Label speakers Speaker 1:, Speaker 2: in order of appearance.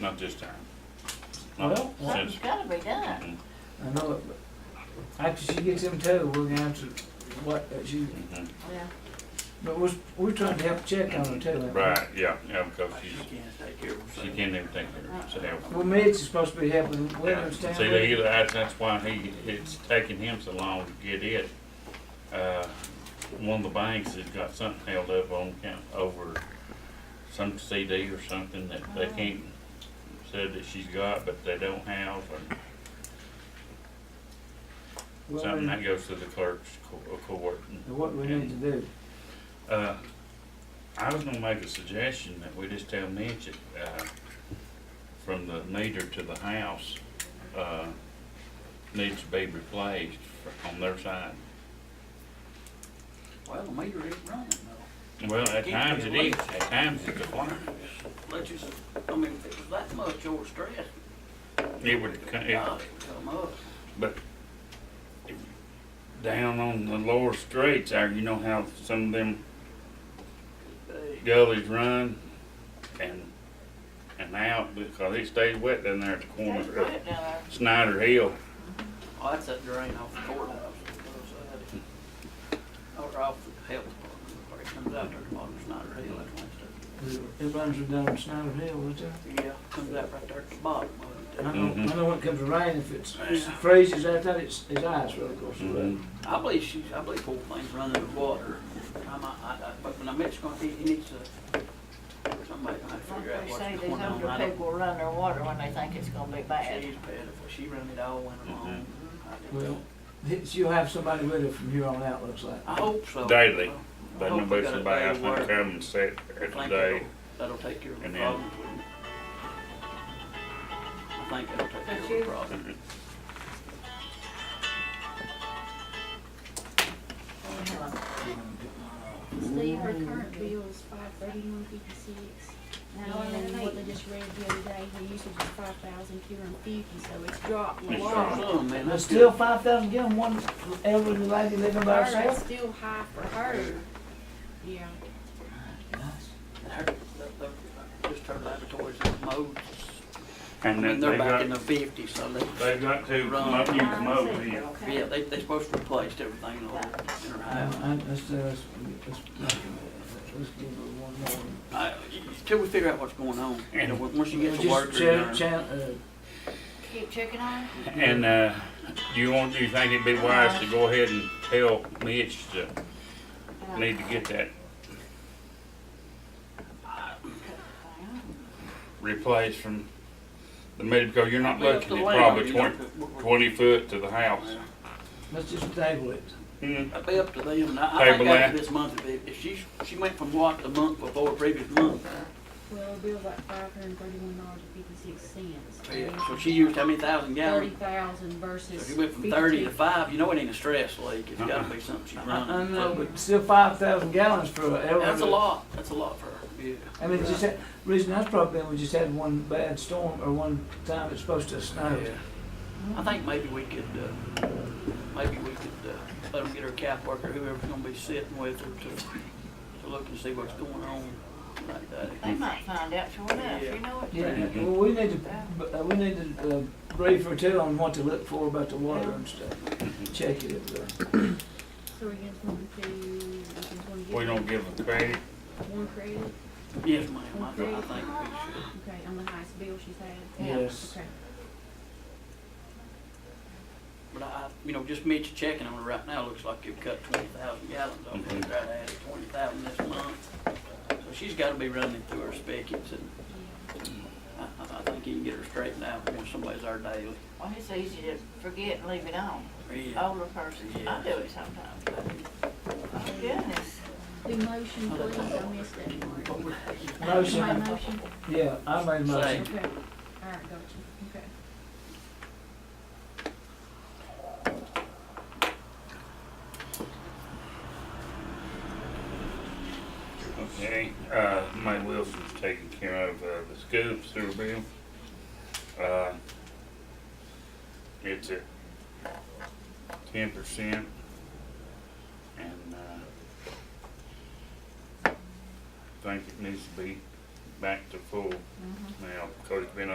Speaker 1: not this time. Not
Speaker 2: Well,
Speaker 1: since-
Speaker 3: Something's gotta be
Speaker 1: Mhm,
Speaker 3: done.
Speaker 2: I know it, but after she gets them towed, we're gonna have to, what, uh, she,
Speaker 1: mhm.
Speaker 3: Yeah.
Speaker 2: but we're, we're trying to help check on her too. ain't we?
Speaker 1: Right, yeah, yeah, because
Speaker 4: She
Speaker 1: she's,
Speaker 4: can't take care of
Speaker 1: she
Speaker 4: herself.
Speaker 1: can't even take care of herself.
Speaker 2: Well, Mitch is supposed to be helping Williams
Speaker 1: Yeah.
Speaker 2: down
Speaker 1: See, they
Speaker 2: there.
Speaker 1: either, that's, that's why he, it's taking him so long to get it. Uh, one of the banks has got something held up on account over some CD or something that they can't, said that she's got, but they don't have, or
Speaker 2: What we-
Speaker 1: something that goes to the clerk's co- court. and-
Speaker 2: What we need to do.
Speaker 1: Uh, I was gonna make a suggestion that we just tell Mitch, uh, from the meter to the house, uh, needs to be replaced fr- on their side.
Speaker 4: Well, the meter ain't running though.
Speaker 1: Well, at times it is, at times it's a blind.
Speaker 4: Let you, s- I mean, if it was that much overstressed,
Speaker 1: It would, co- it-
Speaker 4: God, it would come up.
Speaker 1: but if- down on the lower streets there, you know how some of them
Speaker 4: They-
Speaker 1: gullies run and, and out because it stays wet down there at the corner
Speaker 3: That's
Speaker 1: of
Speaker 3: good down there.
Speaker 1: Snyder Hill.
Speaker 4: Oh, that's that drain off the courthouse on the other side. Or off the health department, where it comes out there to bottom of Snyder Hill, that's one stuff.
Speaker 2: It runs down Snyder Hill, doesn't it?
Speaker 4: Yeah, comes out right there at the bottom of
Speaker 2: I
Speaker 4: it.
Speaker 2: know,
Speaker 1: Mhm.
Speaker 2: I know when it comes to rain, if it's it's freezes out there, it's, it's ice road across the road.
Speaker 1: Mm-hmm.
Speaker 4: I believe she's, I believe whole thing's running with water. I'm, I, I, but when I mentioned gonna, he, he needs to, somebody gonna have to
Speaker 3: Like
Speaker 4: figure out
Speaker 3: they say,
Speaker 4: what's
Speaker 3: these
Speaker 4: going on. I
Speaker 3: older
Speaker 4: don't-
Speaker 3: people run their water when they think it's gonna be bad.
Speaker 4: She's bad, if she run it all winter long. I
Speaker 1: Mm-hmm.
Speaker 4: didn't-
Speaker 2: Well, it's- you'll have somebody with her from here on out, looks like.
Speaker 4: I hope so.
Speaker 1: Daily.
Speaker 4: I
Speaker 1: They
Speaker 4: hope
Speaker 1: know
Speaker 4: we
Speaker 1: about
Speaker 4: got a
Speaker 1: somebody
Speaker 4: day
Speaker 1: else
Speaker 4: where
Speaker 1: to come and sit
Speaker 4: I
Speaker 1: there
Speaker 4: think
Speaker 1: today.
Speaker 4: that'll- That'll take care of the
Speaker 1: and then-
Speaker 4: problems with it. I think that'll take
Speaker 3: That's
Speaker 4: care of
Speaker 3: you.
Speaker 4: the problem.
Speaker 5: Steve, our current bill is five thirty-one fifty-six. Now, and then what they just read the other day, the usage is five thousand two hundred and fifty, so it's dropped a
Speaker 1: It's
Speaker 5: lot.
Speaker 4: Some, Oh, man,
Speaker 2: There's
Speaker 4: that's
Speaker 2: still
Speaker 4: good.
Speaker 2: five thousand gallon, one elderly lady living by
Speaker 5: Her, it's
Speaker 2: herself.
Speaker 5: still high for her. Yeah.
Speaker 4: Her- that- that- Just her laboratories and modes. I
Speaker 1: And
Speaker 4: mean,
Speaker 1: then
Speaker 4: they're
Speaker 1: they
Speaker 4: back in
Speaker 1: got,
Speaker 4: the fifties, so they,
Speaker 1: they got to
Speaker 4: Run.
Speaker 1: come up, you come over here.
Speaker 4: yeah, they, they're supposed to replace everything in her in her
Speaker 2: I,
Speaker 4: house.
Speaker 2: I, let's, uh, let's, let's, let's give her one more.
Speaker 4: I- Till we figure out what's going on, you know, once you get
Speaker 2: Well,
Speaker 4: some work.
Speaker 2: Just chan, chan, uh,
Speaker 3: Keep checking on it.
Speaker 1: And, uh, do you want, do you think it'd be wise to go ahead and tell Mitch to, need to get that replaced from the meter, because you're not looking at probably twenty, twenty foot to the house.
Speaker 2: let's just table it.
Speaker 1: Hmm,
Speaker 4: It'd be up to them, and I, I think
Speaker 1: Table
Speaker 4: after
Speaker 1: that.
Speaker 4: this month, if, if she, she went from what the month before, previous month,
Speaker 5: Well, the bill's like five hundred and thirty-one dollars and fifty-six cents.
Speaker 4: Oh, so she used how many thousand
Speaker 5: Thirty
Speaker 4: gallons?
Speaker 5: thousand
Speaker 4: So
Speaker 5: versus
Speaker 4: if you went from thirty to
Speaker 5: 52.
Speaker 4: five, you know it ain't a stress leak, it's gotta be something she's
Speaker 2: I, I
Speaker 4: running.
Speaker 2: know, but still five thousand gallons for an elderly.
Speaker 4: That's a lot, that's a lot for her, yeah.
Speaker 2: I mean, just that, reason that's probably been, we just had one bad storm or one time it's supposed to snow.
Speaker 4: Yeah. I think maybe we could, uh, maybe we could, uh, let them get her cap worker, whoever's gonna be sitting with her to, to look and see what's going on like
Speaker 3: They
Speaker 4: that.
Speaker 3: might find out sure enough, you know it.
Speaker 2: Yeah, well, we need to, uh, we need to, uh, brief her too on what to look for about the water and stuff.
Speaker 4: Mm-hmm.
Speaker 2: Check it, uh,
Speaker 5: So we just want to, we just want to
Speaker 1: we don't
Speaker 5: give
Speaker 1: give them credit.
Speaker 5: one credit,
Speaker 4: Yes, ma'am, I think we should.
Speaker 5: okay, on the highest bill she's had.
Speaker 3: Yeah.
Speaker 2: yes.
Speaker 5: Okay.
Speaker 4: But I, you know, just Mitch checking on it right now, looks like you've cut twenty thousand gallons off it, right at twenty thousand this month. So she's gotta be running through her spigots and I, I I think you can get her straightened out once somebody's our daily.
Speaker 3: Well, it's easy to forget and leave it on. Older persons, I do it sometimes. Oh, Goodness.
Speaker 5: The motion, please, I missed that part. My
Speaker 2: Motion,
Speaker 5: motion,
Speaker 2: yeah, I made a motion.
Speaker 5: okay, all right, gotcha, okay.
Speaker 1: Okay, uh, May Wilson's taking care of, uh, the school sewer bill. Uh, It's at ten percent. And, uh, I think it needs to be back to full now, because it's been